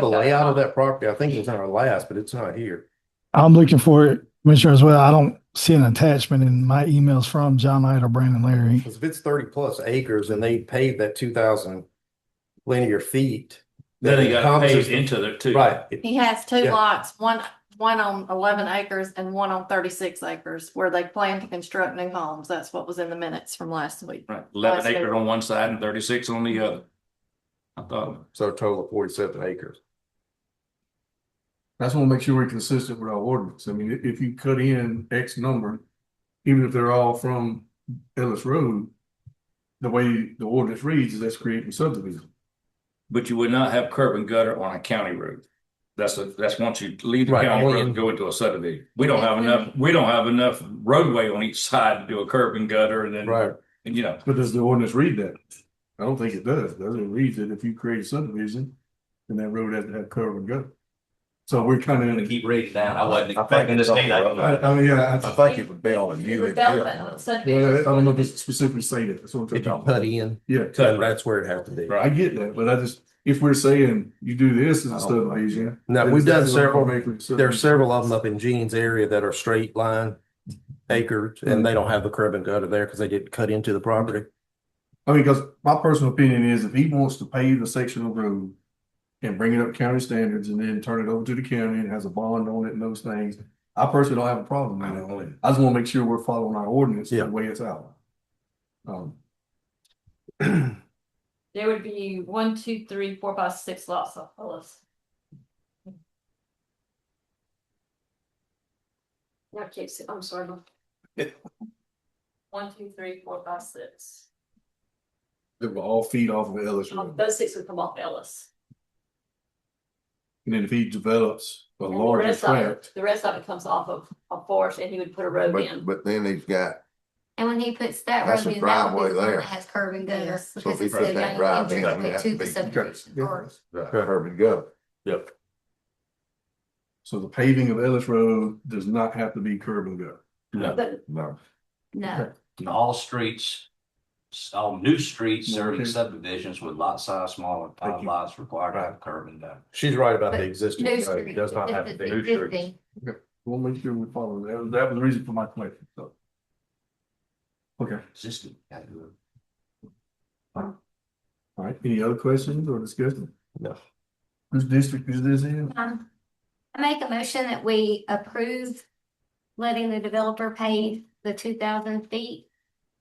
The layout of that property, I think it was in our last, but it's not here. I'm looking for it, Commissioner, as well. I don't see an attachment in my emails from John Knight or Brandon Larry. Because if it's thirty plus acres and they paved that two thousand linear feet. Then that he got encompasses paved the- into there too. Right, it- He has two Yeah. lots, one, one on eleven acres and one on thirty-six acres where they plan to construct new homes. That's what was in the minutes from last week. Right, eleven Last acre. acre on one side and thirty-six on the other. I thought, so a total of forty-seven acres. I just want to make sure we're consistent with our ordinance. I mean, i- if you cut in X number, even if they're all from Ellis Road, the way the ordinance reads is that's creating subdivision. but you would not have curb and gutter on a county road. That's a, that's once you leave the Right, county only road in- and go into a subdivision. We don't have enough, we don't have enough roadway on each side to do a curb and gutter and then. Right. And you know, But does the ordinance read that? I don't think it does. Doesn't it read that if you create a subdivision, then that road has to have curb and gutter. So we're kind I'm of, gonna keep reading down. I wasn't I think expecting to it's see all I, that. I mean, yeah, I I, think it would be on It you. was relevant, so- well, I don't know if it's specifically saying it. That's what I'm If you talking cut about. in, Yeah. cut, right, that's where it has to be. I get that, but I just, if we're saying you do this as I a don't like subdivision. Now, then we've done that's a several, automatic there are subdivision. several of them up in Gene's area that are straight line acres and they don't have the curb and gutter there because they didn't cut into the property. I mean, because my personal opinion is if he wants to pave the section of road and bring it up county standards and then turn it over to the county and has a bond on it and those things, I personally don't have a problem I with don't it. know it. I just want to make sure we're following our ordinance Yeah. the way it's out. Um, There would be one, two, three, four, five, six lots of Ellis. Not Casey, I'm sorry. One, two, three, four, five, six. they will all feed off of Ellis Road. Those six would come off Ellis. And then if he develops a And the larger rest of it- tract, The rest of it comes off of, of Forest and he would put a road But, in. but then he's got, And when he puts that That's road a in, that driveway will be the one there. that has curb and gutter. Yes. so if Because he it's puts still that got drive an in, I mean, entrance that's to the big. subdivision or Curb and gutter. Yep. so the paving of Ellis Road does not have to be curb and gutter. No. No. no. And all streets, all new streets Okay. serving subdivisions with lot size smaller, than Thank five you. lots required to have curb and gutter. She's right about the But existing. New road. It street. Does not have to This be. is new street. existing. We'll make sure we follow that. That was- That was the reason for my question, so. Okay. Existing. gotta do it. All right, any other questions or discussion? No. Whose district is this in? Um, I make a motion that we approve letting the developer pay the two thousand feet.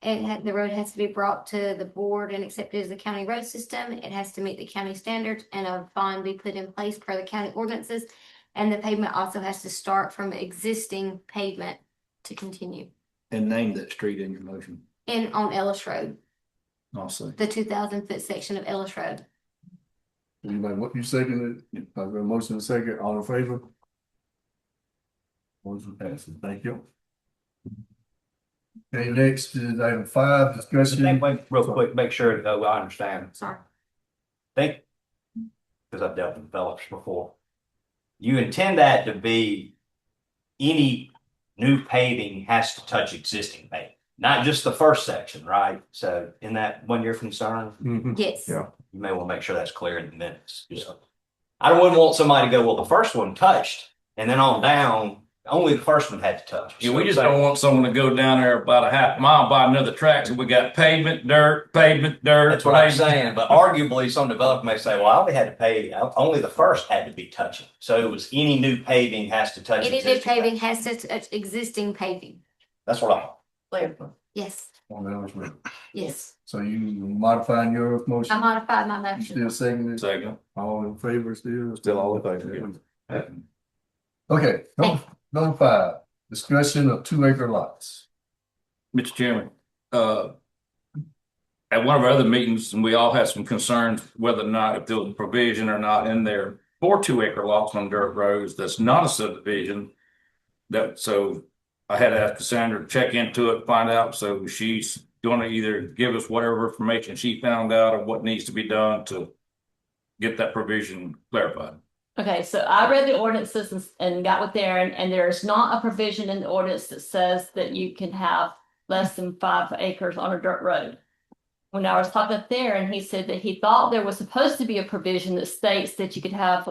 It had, the road has to be brought to the board and accepted as a county road system. It has to meet the county standards and a bond be put in place per the county ordinances. And the pavement also has to start from existing pavement to continue And name that street in your motion. in on Ellis Road, I'll say. the two thousand foot section of Ellis Road. Anybody, what you seconded? it? I got a motion and a second, all in favor? Motion passes, thank you. Okay, next is item five, discussion. Make- make- Real quick, make sure, uh, I understand. Sorry. Think, because I've dealt with developers before. You intend that to be any new paving has to touch existing paving, not just the first section, right? So in that one year concern, Mhm. Yes. Yeah. you may want to make sure that's clear in the minutes. Just- I wouldn't want somebody to go, well, the first one touched, and then on down, only the first one had to touch. Yeah, we just don't want someone to go down there about a half mile, buy another track, so we got pavement, dirt, pavement, dirt. That's what I'm pavement. saying, but arguably, some developer may say, well, I only had to pay, only the first had to be touching. So it was any new paving has to touch. Any new existing paving has to touch existing paving. That's what I'm. Yes, On the Ellis Road. yes. So you modifying your I motion, modified my you motion. still seconding it, Second. all in favor still? Still all in favor. Okay, number, number five, discussion of two acre lots. Mr. Chairman, uh, at one of our other meetings, and we all had some concerns whether or not if there was a provision or not in there for two acre lots on dirt roads, that's not a subdivision. That, so I had to ask Cassandra to check into it, find out, so she's gonna either give us whatever information she found out or what needs to be done to get that provision clarified. Okay, so I read the ordinances and- and got with Darren, and there's not a provision in the ordinance that says that you can have less than five acres on a dirt road. When I was talking to Darren, he said that he thought there was supposed to be a provision that states that you could have